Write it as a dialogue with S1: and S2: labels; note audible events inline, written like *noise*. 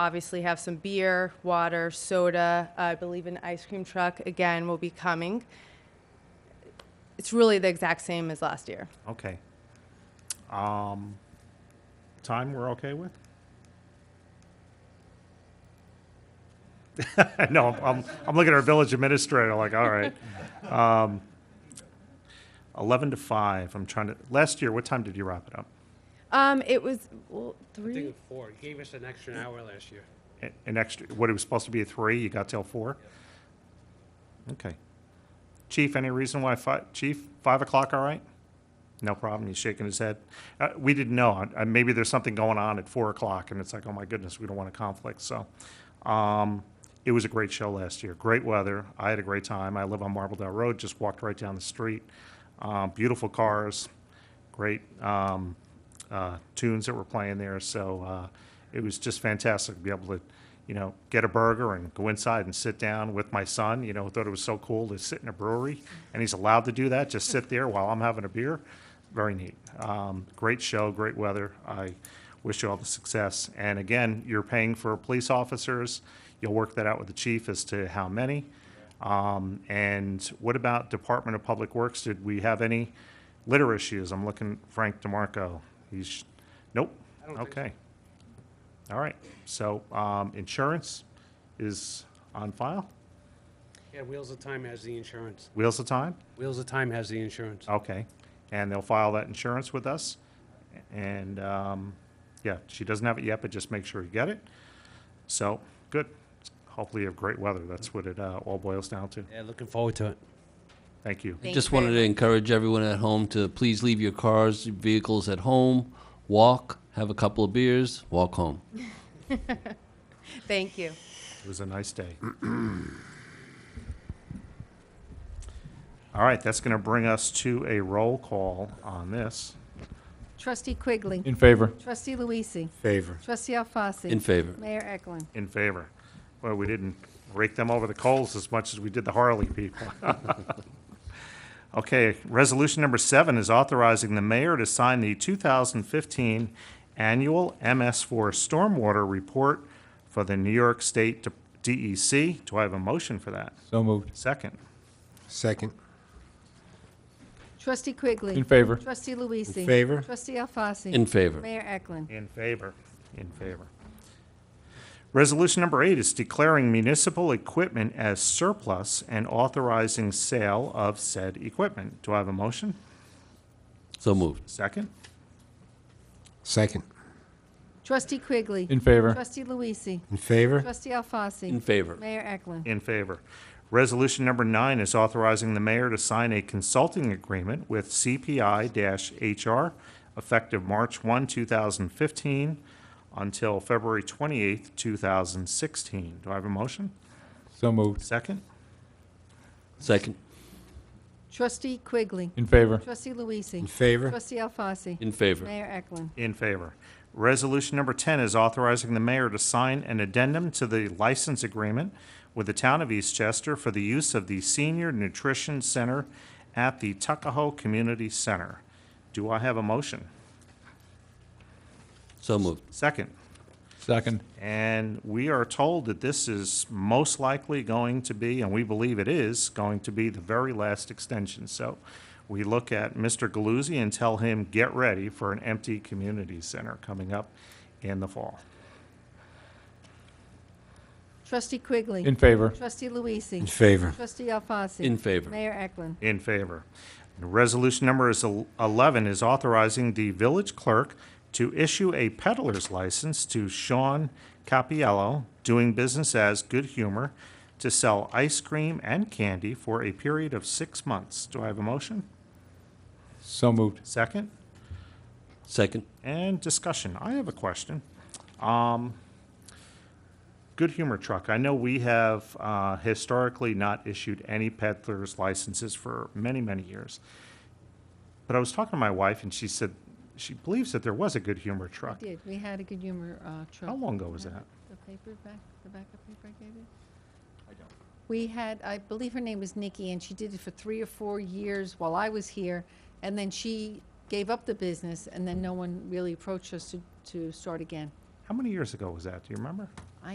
S1: obviously have some beer, water, soda. uh, I believe an ice cream truck, again, will be coming. It's really the exact same as last year.
S2: Okay. Um, Time we're okay with? *laughs* No, I'm- I'm, I'm looking at our village administrator like, all right. Um, 11 to 5, I'm trying to, last year, what time did you wrap it up?
S1: Um, it was well,
S3: I think
S1: three.
S3: it's four. He gave us an extra hour last year.
S2: A- An extra, what it was supposed to be at 3, you got till 4? Okay. Chief, any reason why fi, chief, 5 o'clock, all right? No problem, he's shaking his head. Uh, we didn't know, uh, maybe there's something going on at 4 o'clock, and it's like, oh my goodness, we don't want a conflict, so. Um, it was a great show last year, great weather, I had a great time, I live on Marble Dell Road, just walked right down the street. Um, beautiful cars, great, um, uh, tunes that were playing there, so, uh, it was just fantastic to be able to, you know, get a burger and go inside and sit down with my son. You know, thought it was so cool to sit in a brewery, and he's allowed to do that, just sit there while I'm having a beer. Very neat. Um, great show, great weather. I wish you all the success. And again, you're paying for police officers. You'll work that out with the chief as to how many. Um, and what about Department of Public Works? Did we have any litter issues? I'm looking Frank DeMarco. He's, nope.
S3: I don't think so.
S2: Okay. All right, so um, insurance is on file?
S3: Yeah, Wheels of Time has the insurance.
S2: Wheels of Time?
S3: Wheels of Time has the insurance.
S2: Okay, and they'll file that insurance with us. And, um, yeah, she doesn't have it yet, but just make sure you get it. So, good. Hopefully you have great weather. That's what it uh, all boils down to.
S3: Yeah, looking forward to it.
S2: Thank you.
S1: Thank
S4: Just
S1: you very
S4: wanted to encourage everyone at home to please leave your cars, your vehicles at home, walk, have a couple of beers, walk home.
S1: Thank you.
S2: It was a nice day. All right, that's going to bring us to a roll call on this.
S5: Trustee Quigley.
S6: In favor.
S5: Trustee Luisi.
S7: Favor.
S5: Trustee Alfasi.
S4: In favor.
S5: Mayor Eklund.
S2: in favor. Well, we didn't rake them over the coals as much as we did the Harley people. *laughs* Okay, resolution number seven is authorizing the mayor to sign the 2015 annual MS4 stormwater report for the New York State DEC. Do I have a motion for that?
S6: So moved.
S2: Second.
S7: Second.
S5: Trustee Quigley.
S6: In favor.
S5: Trustee Luisi.
S7: In favor.
S5: Trustee Alfasi.
S4: In favor.
S5: Mayor Eklund.
S2: In favor. In favor. Resolution number eight is declaring municipal equipment as surplus and authorizing sale of said equipment. Do I have a motion?
S4: So moved.
S2: Second?
S7: Second.
S5: Trustee Quigley.
S6: In favor.
S5: Trustee Luisi.
S7: In favor?
S5: Trustee Alfasi.
S4: In favor.
S5: Mayor Eklund.
S2: In favor. Resolution number nine is authorizing the mayor to sign a consulting agreement with CPI-HR effective March 1, 2015 until February 28, 2016. Do I have a motion?
S6: So moved.
S2: Second?
S4: Second.
S5: Trustee Quigley.
S6: In favor.
S5: Trustee Luisi.
S7: In favor?
S5: Trustee Alfasi.
S4: In favor.
S5: Mayor Eklund.
S2: In favor. Resolution number 10 is authorizing the mayor to sign an addendum to the license agreement with the town of Eastchester for the use of the Senior Nutrition Center at the Tuckahoe Community Center. Do I have a motion?
S4: So moved.
S2: Second?
S6: Second.
S2: And we are told that this is most likely going to be, and we believe it is, going to be the very last extension. So we look at Mr. Galuzzi and tell him, get ready for an empty community center coming up in the fall.
S5: Trustee Quigley.
S6: In favor.
S5: Trustee Luisi.
S7: In favor?
S5: Trustee Alfasi.
S4: In favor.
S5: Mayor Eklund.
S2: In favor. Resolution number is el- 11 is authorizing the village clerk to issue a peddler's license to Sean Capiello, doing business as Good Humor, to sell ice cream and candy for a period of six months. Do I have a motion?
S6: So moved.
S2: Second?
S4: Second.
S2: And discussion. I have a question. Um, Good Humor Truck, I know we have uh, historically not issued any peddler's licenses for many, many years. But I was talking to my wife, and she said she believes that there was a Good Humor Truck.
S5: Did, we had a good humor uh, truck.
S2: How long ago was that?
S5: The paper back, the backup paper I gave you? I don't. We had, I believe her name was Nikki, and she did it for three or four years while I was here. And then she gave up the business, and then no one really approached us to, to start again.
S2: How many years ago was that? Do you remember?